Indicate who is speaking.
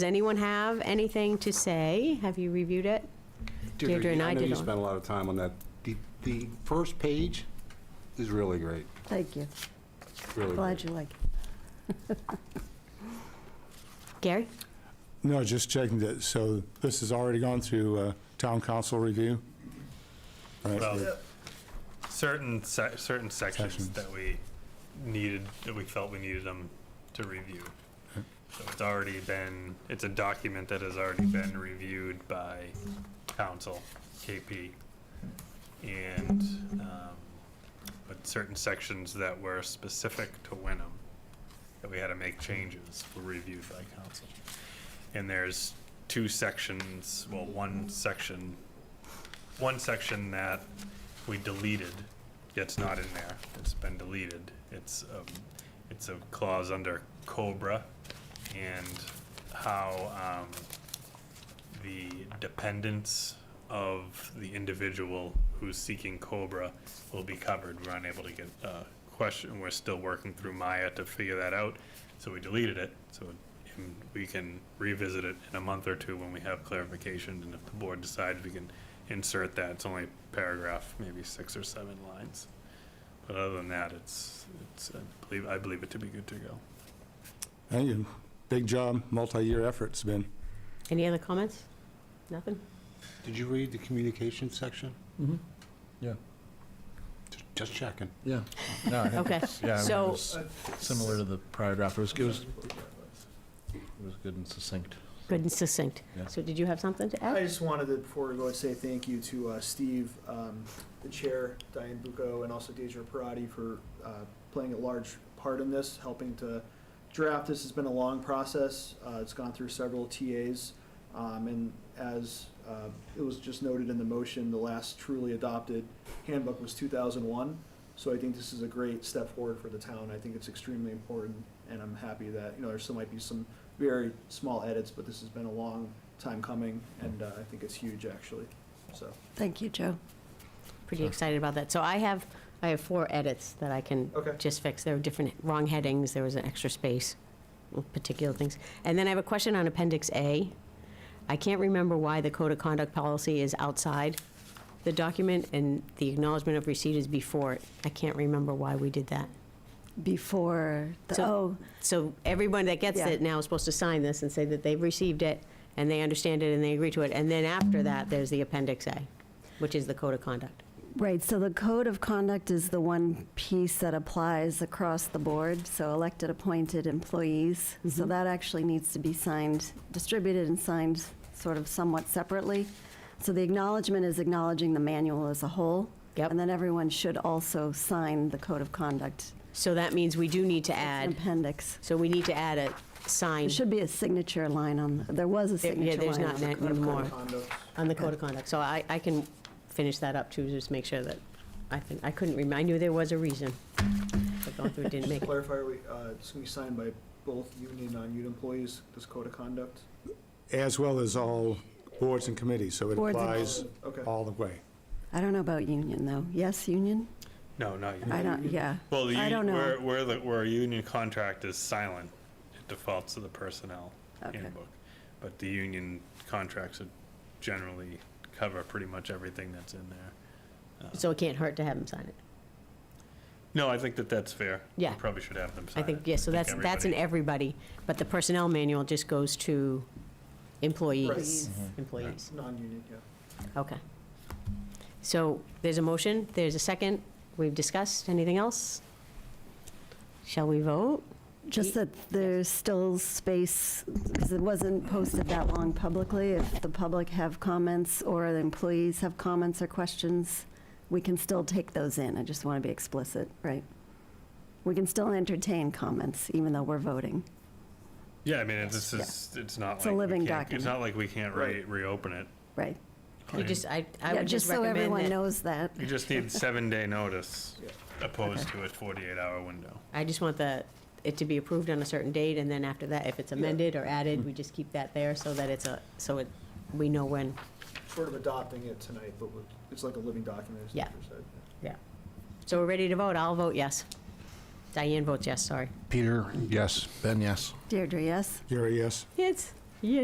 Speaker 1: Does anyone have anything to say? Have you reviewed it? Deirdre and I
Speaker 2: know
Speaker 1: did
Speaker 2: you
Speaker 1: on.
Speaker 2: spent a lot of time on that. The, the first page is really great,
Speaker 3: Thank you.
Speaker 2: really
Speaker 3: Glad
Speaker 2: great.
Speaker 3: you like it.
Speaker 1: Gary?
Speaker 4: No, just checking that, so this has already gone through uh, town council review? Right.
Speaker 5: Well, certain se- certain sections,
Speaker 4: Sections.
Speaker 5: that we needed that we felt we needed them to review. So it's already been it's a document that has already been reviewed by council, KP, and um, but certain sections that were specific to Wenham that we had to make changes were reviewed by council. And there's two sections, well, one section one section that we deleted, it's not in there, it's been deleted. It's, um, it's a clause under Cobra and how, um, the dependence of the individual who's seeking Cobra will be covered. We're unable to get a question, we're still working through Maya to figure that out, so we deleted it. So um, we can revisit it in a month or two when we have clarification, and if the board decides, we can insert that. It's only a paragraph, maybe six or seven lines. But other than that, it's, it's, I believe, I believe it to be good to go.
Speaker 4: Thank you. Big job, multi-year effort it's been.
Speaker 1: Any other comments? Nothing?
Speaker 2: Did you read the communication section?
Speaker 6: Mhm. Yeah.
Speaker 2: Ju- Just checking.
Speaker 6: Yeah. No, I think
Speaker 1: Okay,
Speaker 6: it's- yeah, I mean,
Speaker 1: so-
Speaker 6: it was Similar to the prior draft. It was, it was, it was good and succinct.
Speaker 1: Good and succinct.
Speaker 6: Yeah.
Speaker 1: So did you have something to
Speaker 7: I
Speaker 1: add?
Speaker 7: just wanted to, before we go, say thank you to uh, Steve, um, the chair, Diane Bucco, and also Deidre Parati for uh, playing a large part in this, helping to draft this. It's been a long process. Uh, It's gone through several TAs. um, And as uh, it was just noted in the motion, the last truly adopted handbook was 2001. So I think this is a great step forward for the town. I think it's extremely important, and I'm happy that, you know, there still might be some very small edits, but this has been a long time coming, and uh, I think it's huge, actually, so.
Speaker 3: Thank you, Joe.
Speaker 1: Pretty excited about that. So I have, I have four edits that I can
Speaker 7: Okay.
Speaker 1: just fix. There were different, wrong headings, there was an extra space, with particular things. And then I have a question on Appendix A. I can't remember why the code of conduct policy is outside the document, and the acknowledgement of receipt is before it. I can't remember why we did that.
Speaker 3: Before, the
Speaker 1: So-
Speaker 3: oh,
Speaker 1: So everyone that gets
Speaker 3: Yeah.
Speaker 1: it now is supposed to sign this and say that they've received it, and they understand it, and they agree to it. And then after that, there's the Appendix A, which is the code of conduct.
Speaker 3: right, so the code of conduct is the one piece that applies across the board, so elected, appointed employees.
Speaker 1: Mm-hmm.
Speaker 3: So that actually needs to be signed, distributed and signed sort of somewhat separately. So the acknowledgement is acknowledging the manual as a whole.
Speaker 1: Yep.
Speaker 3: And then everyone should also sign the code of conduct
Speaker 1: So that means we do need to add,
Speaker 3: appendix.
Speaker 1: so we need to add a sign
Speaker 3: There should be a signature line on, there was a
Speaker 1: There- yeah,
Speaker 3: signature line.
Speaker 1: there's
Speaker 3: on
Speaker 1: not
Speaker 3: the
Speaker 1: that
Speaker 3: code of
Speaker 1: anymore.
Speaker 3: conduct.
Speaker 7: Condo.
Speaker 1: on the code of conduct. So I, I can finish that up too, just make sure that, I think, I couldn't remember, I knew there was a reason. But going through it didn't make
Speaker 7: Just
Speaker 1: it.
Speaker 7: clarify, are we, uh, it's gonna be signed by both union and non-union employees, this code of conduct?
Speaker 4: As well as all boards and committees, so it
Speaker 3: Boards and-
Speaker 4: applies
Speaker 7: Okay.
Speaker 4: all the way.
Speaker 3: I don't know about union, though. Yes, union?
Speaker 5: No, not you.
Speaker 3: I don't, yeah.
Speaker 5: Well, the
Speaker 3: I
Speaker 5: uni-
Speaker 3: don't know.
Speaker 5: Where, where, the, where a union contract is silent, it defaults to the personnel
Speaker 3: Okay.
Speaker 5: handbook. But the union contracts would generally cover pretty much everything that's in there.
Speaker 1: So it can't hurt to have them sign it.
Speaker 5: No, I think that that's fair. We
Speaker 1: Yeah.
Speaker 5: Probably should have them
Speaker 1: I
Speaker 5: sign it.
Speaker 1: think, yes. so that's, that's an
Speaker 5: everybody-
Speaker 1: everybody, but the personnel manual just goes to employees.
Speaker 7: Employees.
Speaker 1: Employees,
Speaker 7: Non-union, yeah.
Speaker 1: okay. So there's a motion, there's a second, we've discussed, anything else? Shall we vote?
Speaker 3: Just that there's still space, because it wasn't posted that long publicly. If the public have comments or the employees have comments or questions, we can still take those in. I just want to be explicit, right? We can still entertain comments, even though we're voting.
Speaker 5: Yeah, I mean, it's, it's, just- it's not like.
Speaker 3: It's a
Speaker 5: we
Speaker 3: living
Speaker 5: can't-
Speaker 3: document.
Speaker 5: It's not like we can't re,
Speaker 7: Right.
Speaker 5: reopen it.
Speaker 3: Right.
Speaker 1: We just, I, I
Speaker 3: Yeah,
Speaker 1: would just
Speaker 3: so everyone
Speaker 1: recommend that,
Speaker 3: knows that.
Speaker 5: You just need seven-day notice opposed to a 48-hour window.
Speaker 1: I just want the, it to be approved on a certain date, and then after that, if it's amended or added, we just keep that there so that it's a, so it, we know when.
Speaker 7: Sort of adopting it tonight, but with- it's like a living document, as
Speaker 1: Yeah.
Speaker 7: Peter said.
Speaker 1: Yeah. So we're ready to vote, I'll vote yes. Diane votes yes, sorry.
Speaker 2: Peter, yes.
Speaker 6: Ben, yes.
Speaker 3: Deirdre, yes?
Speaker 4: Gary, yes?
Speaker 1: Yes.